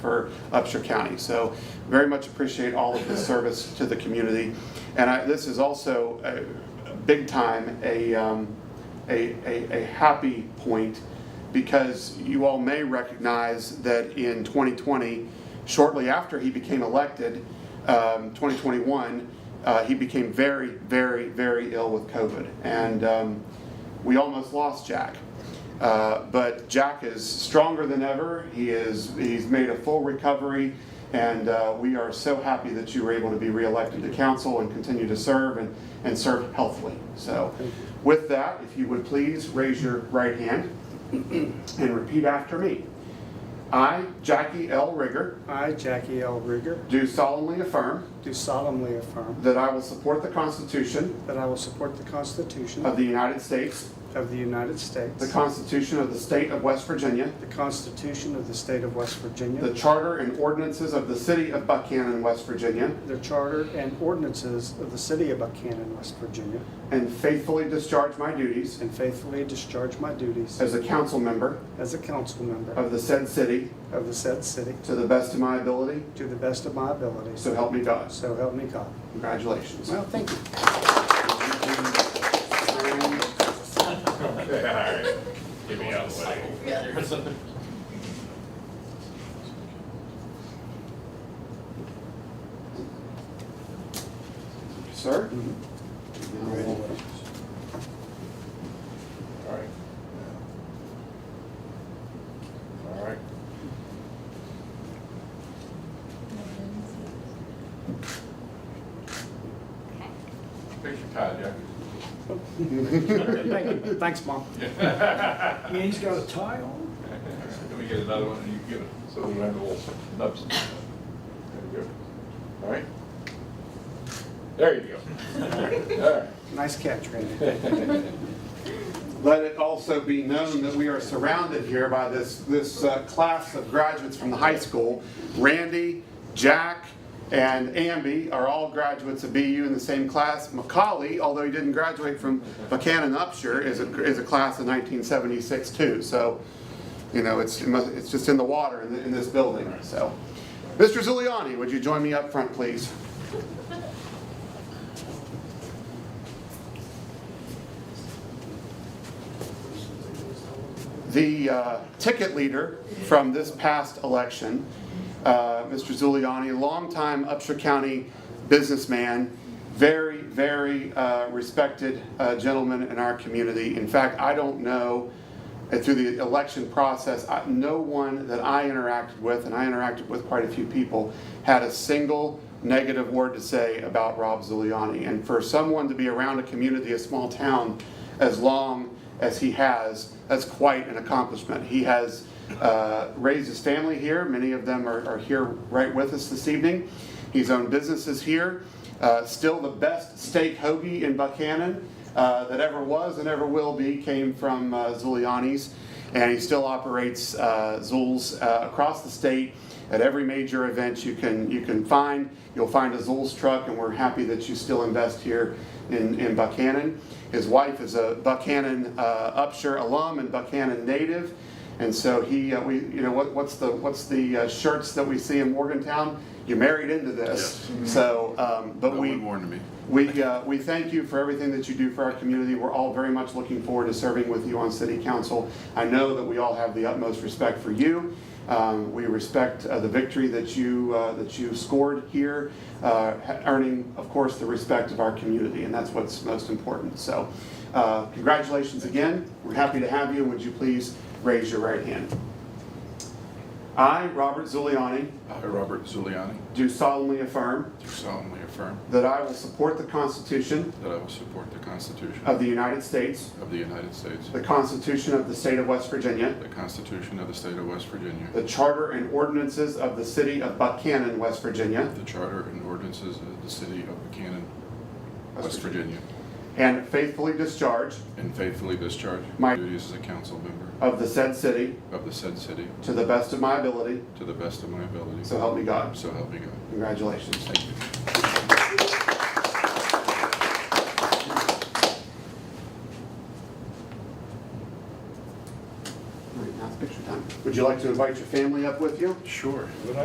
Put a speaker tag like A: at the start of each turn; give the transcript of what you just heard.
A: for Upshur County. So very much appreciate all of the service to the community. And I, this is also a, a big time, a, um, a, a, a happy point because you all may recognize that in 2020, shortly after he became elected, um, 2021, uh, he became very, very, very ill with COVID. And, um, we almost lost Jack. Uh, but Jack is stronger than ever. He is he's made a full recovery, and uh, we are so happy that you were able to be reelected to council and continue to serve and, and serve healthily. So, with that, if you would please raise your right hand and repeat after me. I, Jackie L. Rigger,
B: I, Jackie L. Rieger,
A: do solemnly affirm
B: do solemnly affirm
A: that I will support the Constitution
B: that I will support the Constitution
A: of the United States,
B: of the United
A: the
B: States,
A: Constitution of the State of West Virginia,
B: the Constitution of the State of West
A: The
B: Virginia,
A: charter and ordinances of the city of Buchanan, West Virginia,
B: the Charter and ordinances of the City of Buchanan, West Virginia,
A: and faithfully discharge my duties
B: and faithfully discharge my duties
A: as a council member
B: as a council member
A: of the said city
B: of the said city
A: to the best of my ability,
B: to the best of my ability.
A: so help me God.
B: So help me God.
A: Congratulations.
B: Well, thank you.
C: Alright, get me out of the way.
A: Sir?
C: Alright. Alright. Fix your tie, Jack.
B: Thank you. Thanks, Mom.
D: Yeah, he's got a tie on?
C: Let me get another one and you give it, so we don't have little nubs. There you go. Alright? There you go. Alright.
B: Nice catch, Randy.
A: Let it also be known that we are surrounded here by this, this uh, class of graduates from the high school. Randy, Jack, and Amby are all graduates of BU in the same class. Macaulay, although he didn't graduate from Buchanan Upshur, is a, is a class of 1976 too. So, you know, it's, it must- it's just in the water in, th- in this building, so. Mr. Zuliani, would you join me up front, please? The uh, ticket leader from this past election, uh, Mr. Zuliani, longtime Upshur County businessman, very, very uh, respected uh, gentleman in our community. In fact, I don't know, uh, through the election process, I- no one that I interacted with, and I interacted with quite a few people, had a single negative word to say about Rob Zuliani. And for someone to be around a community, a small town, as long as he has, that's quite an accomplishment. He has uh, raised his family here. Many of them are, are here right with us this evening. He's owned businesses here. Uh, still the best steak hoagie in Buchanan uh, that ever was and ever will be came from uh, Zuliani's. And he still operates uh, Zul's uh, across the state at every major event you can, you can find. You'll find a Zul's truck, and we're happy that you still invest here in, in Buchanan. His wife is a Buchanan uh, Upshur alum and Buchanan native. And so he, uh, we, you know, what, what's the, what's the uh, shirts that we see in Morgantown? You married into this. So, um, but we. We, uh, we thank you for everything that you do for our community. We're all very much looking forward to serving with you on city council. I know that we all have the utmost respect for you. Um, We respect uh, the victory that you, uh, that you scored here, uh, ha- earning, of course, the respect of our community, and that's what's most important. So uh, congratulations again. We're happy to have you. Would you please raise your right hand? I, Robert Zuliani,
E: I, Robert Zuliani,
A: do solemnly affirm
E: do solemnly affirm
A: that I will support the Constitution
E: that I will support the Constitution
A: of the United States
E: of the United States,
A: The Constitution of the State of West Virginia.
E: the Constitution of the State of West Virginia,
A: The Charter and ordinances of the City of Buchanan, West Virginia.
E: the Charter and ordinances of the City of Buchanan, West Virginia,
A: And faithfully discharge
E: and faithfully discharge
A: My-
E: my duties as a council member
A: of the said city
E: of the said city
A: to the best of my ability.
E: to the best of my ability.
A: So help me God.
E: So help me God.
A: Congratulations.
E: Thank you.
A: All right, Now it's picture time. Would you like to invite your family up with you?
E: Sure.